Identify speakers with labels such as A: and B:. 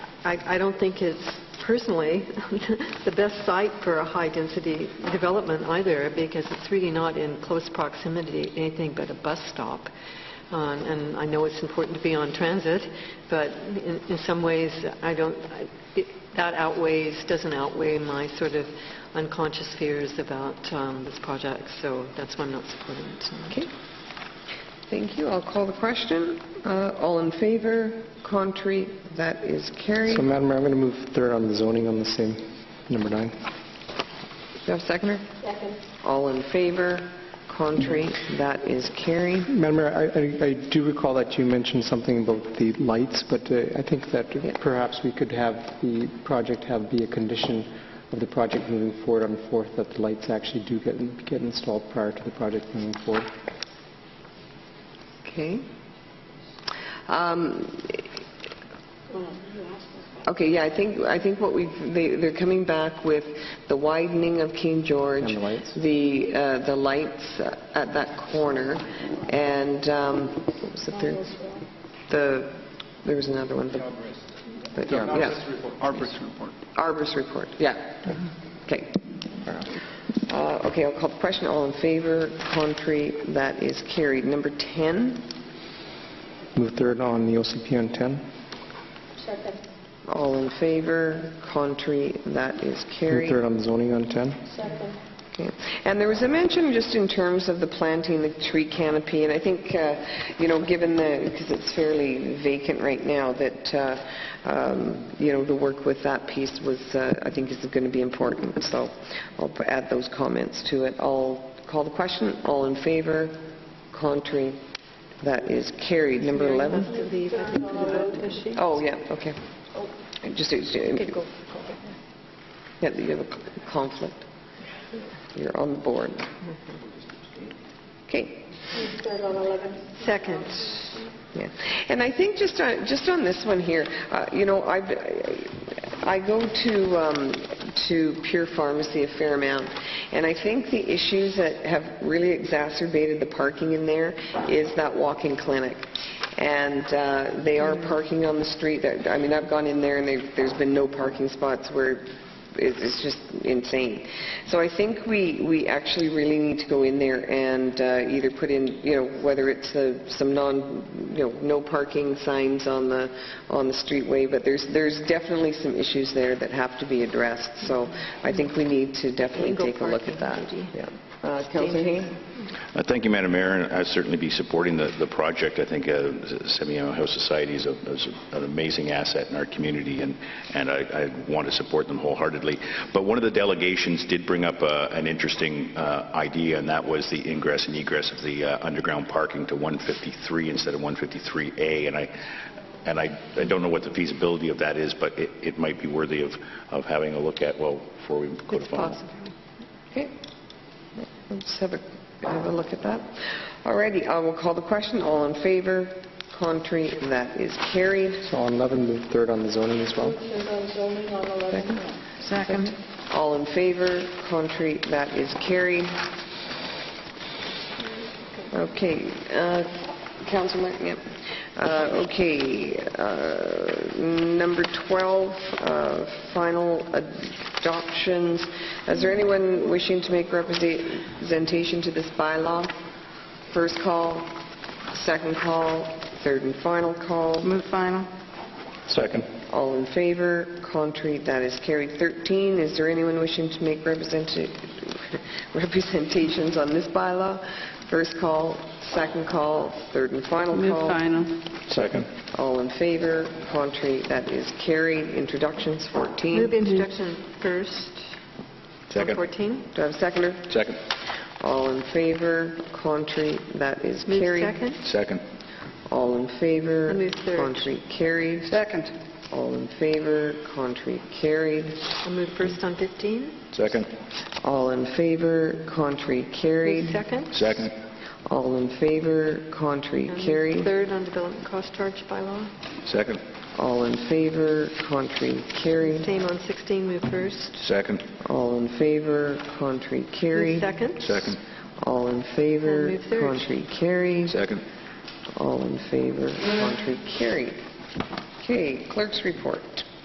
A: I I don't think it's personally the best site for a high-density development either, because it's really not in close proximity to anything but a bus stop. Um, And I know it's important to be on transit, but in in some ways, I don't, I- it- that outweighs, doesn't outweigh my sort of unconscious fears about um, this project, so that's why I'm not supporting it tonight.
B: Okay. Thank you. I'll call the question. Uh, All in favor? Contrary? That is carried.
C: So
B: Do
C: Madam Mayor, I'm going to move third on the zoning on the same, number nine.
B: you have a seconder? Second. All in favor? Contrary? That is carried.
C: Madam Mayor, I- I I do recall that you mentioned something about the lights, but uh, I think that perhaps we could have the project have be a condition of the project moving forward on fourth, that the lights actually do get get installed prior to the project moving forward.
B: Okay. Um, Okay, yeah, I think, I think what we've, they- they're coming back with the widening of King George.
C: And the lights.
B: The, uh, the lights at that corner, and, um, what was the third? The, there was another one. The yeah, yeah.
D: Arborist report.
B: Arbor's report, yeah. Okay. Uh, Okay, I'll call the question. All in favor? Contrary? That is carried. Number 10?
C: Move third on the OCP on 10.
B: All in favor, contrary, that is
C: Move
B: carried.
C: third on the zoning on 10.
B: Yeah. And there was a mention just in terms of the planting, the tree canopy, and I think, uh, you know, given the, because it's fairly vacant right now, that, uh, um, you know, the work with that piece was, uh, I think is going to be important, so I'll add those comments to it. I'll call the question, all in favor, contrary, that is carried. Number 11?
A: To leave, I think, for the vote, is she?
B: Oh, yeah, okay. Just, uh, yeah, you have a c- conflict. You're on the board. Okay.
A: Second.
B: Yeah. And I think just on, just on this one here, uh, you know, I've, I go to, um, to Pure Pharmacy a fair amount, and I think the issues that have really exacerbated the parking in there is that walk-in clinic. And uh, they are parking on the street. That- I mean, I've gone in there and there- there's been no parking spots where it's it's just insane. So I think we, we actually really need to go in there and uh, either put in, you know, whether it's uh, some non, you know, no parking signs on the, on the streetway, but there's, there's definitely some issues there that have to be addressed, so I think we need to definitely
A: Angle
B: take a look
A: parking,
B: at that.
A: maybe.
B: Yeah. Uh, Councillor Hain?
E: Uh, Thank you, Madam Mayor, and I'd certainly be supporting the the project. I think uh, Semiahmoo House Society is a- is an amazing asset in our community, and and I I want to support them wholeheartedly. But one of the delegations did bring up uh, an interesting uh, idea, and that was the ingress and egress of the uh, underground parking to 153 instead of 153A, and I and I, I don't know what the feasibility of that is, but it, it might be worthy of, of having a look at, well, before we go to final.
B: Okay. Let's have a, have a look at that. All righty, I will call the question. All in favor? Contrary? That is carried.
C: So on 11, move third on the zoning as well.
B: Second. All in favor, contrary, that is carried. Okay, uh, Councilor, yep. Uh, Okay, uh, number 12, uh, final adoptions. Is there anyone wishing to make representation to this bylaw? First call, second call, third and final call.
F: Move final.
C: Second.
B: All in favor, contrary, that is carried. 13, is there anyone wishing to make representa- representations on this bylaw? First call, second call, third and final
F: Move
B: call.
F: final.
C: Second.
B: All in favor, contrary, that is carried. Introductions, 14.
A: Move
B: Do
A: introduction first.
E: Second.
A: 14.
B: I have a seconder?
E: Second.
B: All in favor, contrary, that is
A: Move
B: carried.
A: second.
E: Second.
B: All in favor,
A: I move third.
B: contrary, carried.
F: Second.
B: All in favor, contrary, carried.
A: I'll move first on 15.
E: Second.
B: All in favor, contrary, carried.
A: Move second.
E: Second.
B: All in favor, contrary,
A: And
B: carried.
A: Um, Third on development cost charge bylaw.
E: Second.
B: All in favor, contrary, carried.
A: Same on 16, move first.
E: Second.
B: All in favor, contrary,
A: Move
B: carried.
A: second.
E: Second.
B: All in favor,
A: And move third.
B: contrary, carried.
E: Second.
B: All in favor, contrary, carried. Okay, clerk's report.